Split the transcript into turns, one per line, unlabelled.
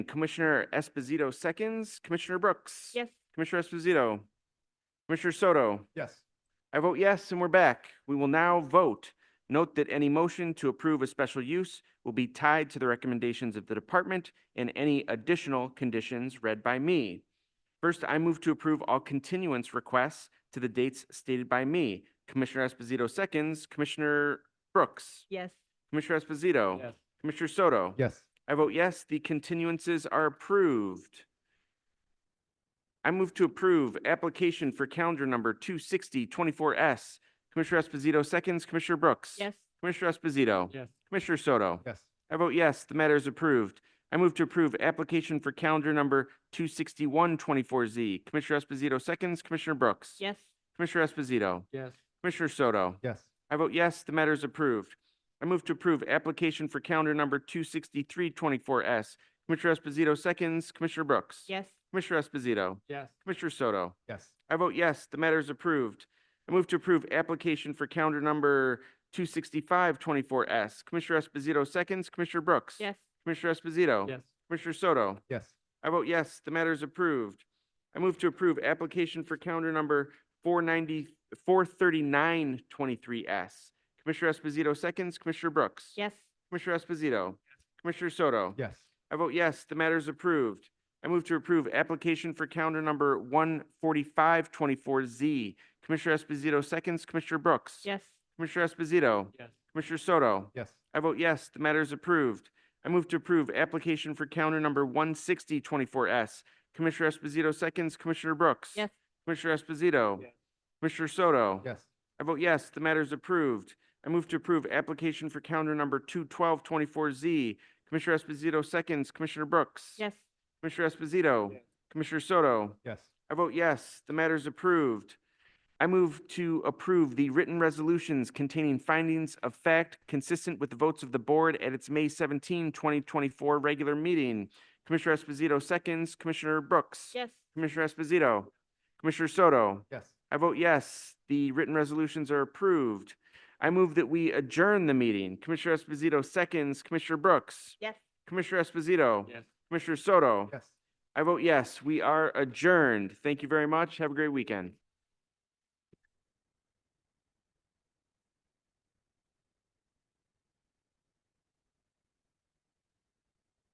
Commissioner Esposito seconds. Commissioner Brooks.
Yes.
Commissioner Esposito. Commissioner Soto.
Yes.
I vote yes, and we're back. We will now vote. Note that any motion to approve a special use will be tied to the recommendations of the department and any additional conditions read by me. First, I move to approve all continuance requests to the dates stated by me. Commissioner Esposito seconds, Commissioner Brooks,
Yes.
Commissioner Esposito,
Yes.
Commissioner Soto.
Yes.
I vote yes, the continuances are approved. I move to approve application for calendar number 26024S. Commissioner Esposito seconds, Commissioner Brooks.
Yes.
Commissioner Esposito.
Yes.
Commissioner Soto.
Yes.
I vote yes, the matter is approved. I move to approve application for calendar number 26124Z. Commissioner Esposito seconds, Commissioner Brooks.
Yes.
Commissioner Esposito.
Yes.
Commissioner Soto.
Yes.
I vote yes, the matter is approved. I move to approve application for calendar number 26324S. Commissioner Esposito seconds, Commissioner Brooks.
Yes.
Commissioner Esposito.
Yes.
Commissioner Soto.
Yes.
I vote yes, the matter is approved. I move to approve application for calendar number 26524S. Commissioner Esposito seconds, Commissioner Brooks.
Yes.
Commissioner Esposito.
Yes.
Commissioner Soto.
Yes.
I vote yes, the matter is approved. I move to approve application for calendar number 490, 43923S. Commissioner Esposito seconds, Commissioner Brooks.
Yes.
Commissioner Esposito. Commissioner Soto.
Yes.
I vote yes, the matter is approved. I move to approve application for calendar number 14524Z. Commissioner Esposito seconds, Commissioner Brooks.
Yes.
Commissioner Esposito.
Yes.
Commissioner Soto.
Yes.
I vote yes, the matter is approved. I move to approve application for counter number 16024S. Commissioner Esposito seconds, Commissioner Brooks.
Yes.
Commissioner Esposito.
Yes.
Commissioner Soto.
Yes.
I vote yes, the matter is approved. I move to approve application for counter number 21224Z. Commissioner Esposito seconds, Commissioner Brooks.
Yes.
Commissioner Esposito.
Yes.
Commissioner Soto.
Yes.
I vote yes, the matter is approved. I move to approve the written resolutions containing findings of fact consistent with the votes of the board at its May 17, 2024 regular meeting. Commissioner Esposito seconds, Commissioner Brooks.
Yes.
Commissioner Esposito. Commissioner Soto.
Yes.
I vote yes, the written resolutions are approved. I move that we adjourn the meeting. Commissioner Esposito seconds, Commissioner Brooks.
Yes.
Commissioner Esposito.
Yes.
Commissioner Soto.
Yes.
I vote yes, we are adjourned. Thank you very much. Have a great weekend.